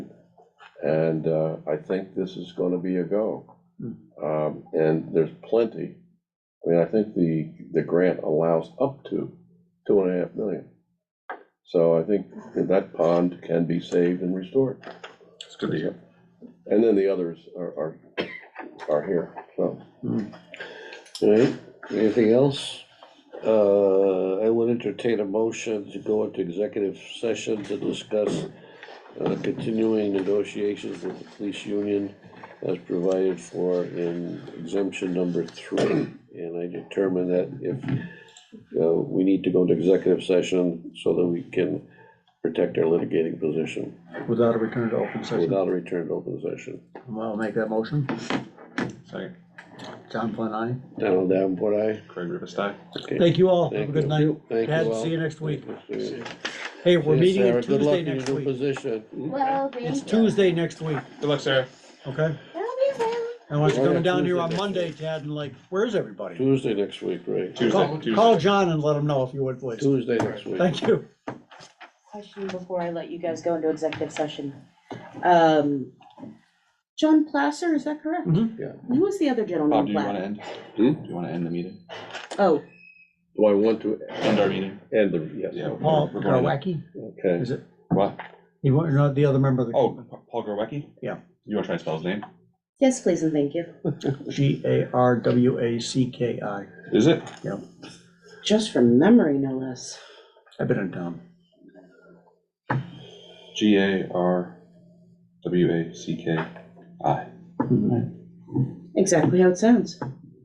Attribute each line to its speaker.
Speaker 1: And uh, I think this is gonna be a go. Um, And there's plenty. I mean, I think the, the grant allows up to two and a half million. So I think that pond can be saved and restored.
Speaker 2: It's good to hear.
Speaker 1: And then the others are, are, are here, so.
Speaker 3: All right, anything else? Uh, I would entertain a motion to go into executive session to discuss uh, continuing negotiations with the police union as provided for in exemption number three. And I determine that if, uh, we need to go into executive session so that we can protect our litigating position
Speaker 4: Without a return to open session,
Speaker 3: without a return to open session.
Speaker 4: I'll make that motion.
Speaker 2: Second,
Speaker 4: John Flynn, aye.
Speaker 3: Down, down, what I,
Speaker 2: Craig Rivers, aye.
Speaker 3: okay.
Speaker 5: Thank you all. Have
Speaker 3: Thank
Speaker 5: a good
Speaker 3: you.
Speaker 5: night.
Speaker 3: Thank you
Speaker 5: Chad,
Speaker 3: all.
Speaker 5: see you next week.
Speaker 3: See you.
Speaker 5: Hey, we're
Speaker 3: Yeah,
Speaker 5: meeting
Speaker 3: Sarah,
Speaker 5: on
Speaker 3: good luck
Speaker 5: Tuesday
Speaker 3: in your
Speaker 5: next
Speaker 3: new
Speaker 5: week. Hmm?
Speaker 3: Position.
Speaker 6: Well, thank
Speaker 5: It's
Speaker 6: you.
Speaker 5: Tuesday next week,
Speaker 2: Good luck, Sarah.
Speaker 5: okay?
Speaker 6: That'll be well.
Speaker 5: I want you
Speaker 3: Oh, yeah,
Speaker 5: coming down here
Speaker 3: Tuesday
Speaker 5: on
Speaker 3: next
Speaker 5: Monday,
Speaker 3: week.
Speaker 5: Chad, and like, where's everybody?
Speaker 3: Tuesday next week, right?
Speaker 2: Tuesday,
Speaker 5: Call call
Speaker 2: Tuesday.
Speaker 5: John and let him know if you would, please.
Speaker 3: Tuesday next week.
Speaker 5: Thank you.
Speaker 6: question before I let you guys go into executive session. Um, John Placer, is that correct?
Speaker 5: Mhm.
Speaker 3: Yeah.
Speaker 6: Who was the other gentleman?
Speaker 2: Bob, do you
Speaker 6: Black?
Speaker 2: wanna end?
Speaker 1: Hmm?
Speaker 2: Do you wanna end the meeting?
Speaker 6: Oh,
Speaker 1: Do I want to
Speaker 2: End our meeting?
Speaker 1: end the, yes,
Speaker 2: Yeah. we're-
Speaker 5: Paul
Speaker 2: we're going to-
Speaker 5: Garwacky,
Speaker 1: okay.
Speaker 5: is it?
Speaker 2: What?
Speaker 5: You want, not the other member of
Speaker 2: Oh, Pa- Paul Garwacki?
Speaker 5: Yeah.
Speaker 2: You wanna try and spell his name?
Speaker 6: yes, please and thank you.
Speaker 5: the G A R W A C K I.
Speaker 2: Is it?
Speaker 6: Just from memory, no less.
Speaker 5: I've been in town.
Speaker 2: G A R W A C K I.
Speaker 4: Mm-hmm.
Speaker 6: Exactly how it sounds.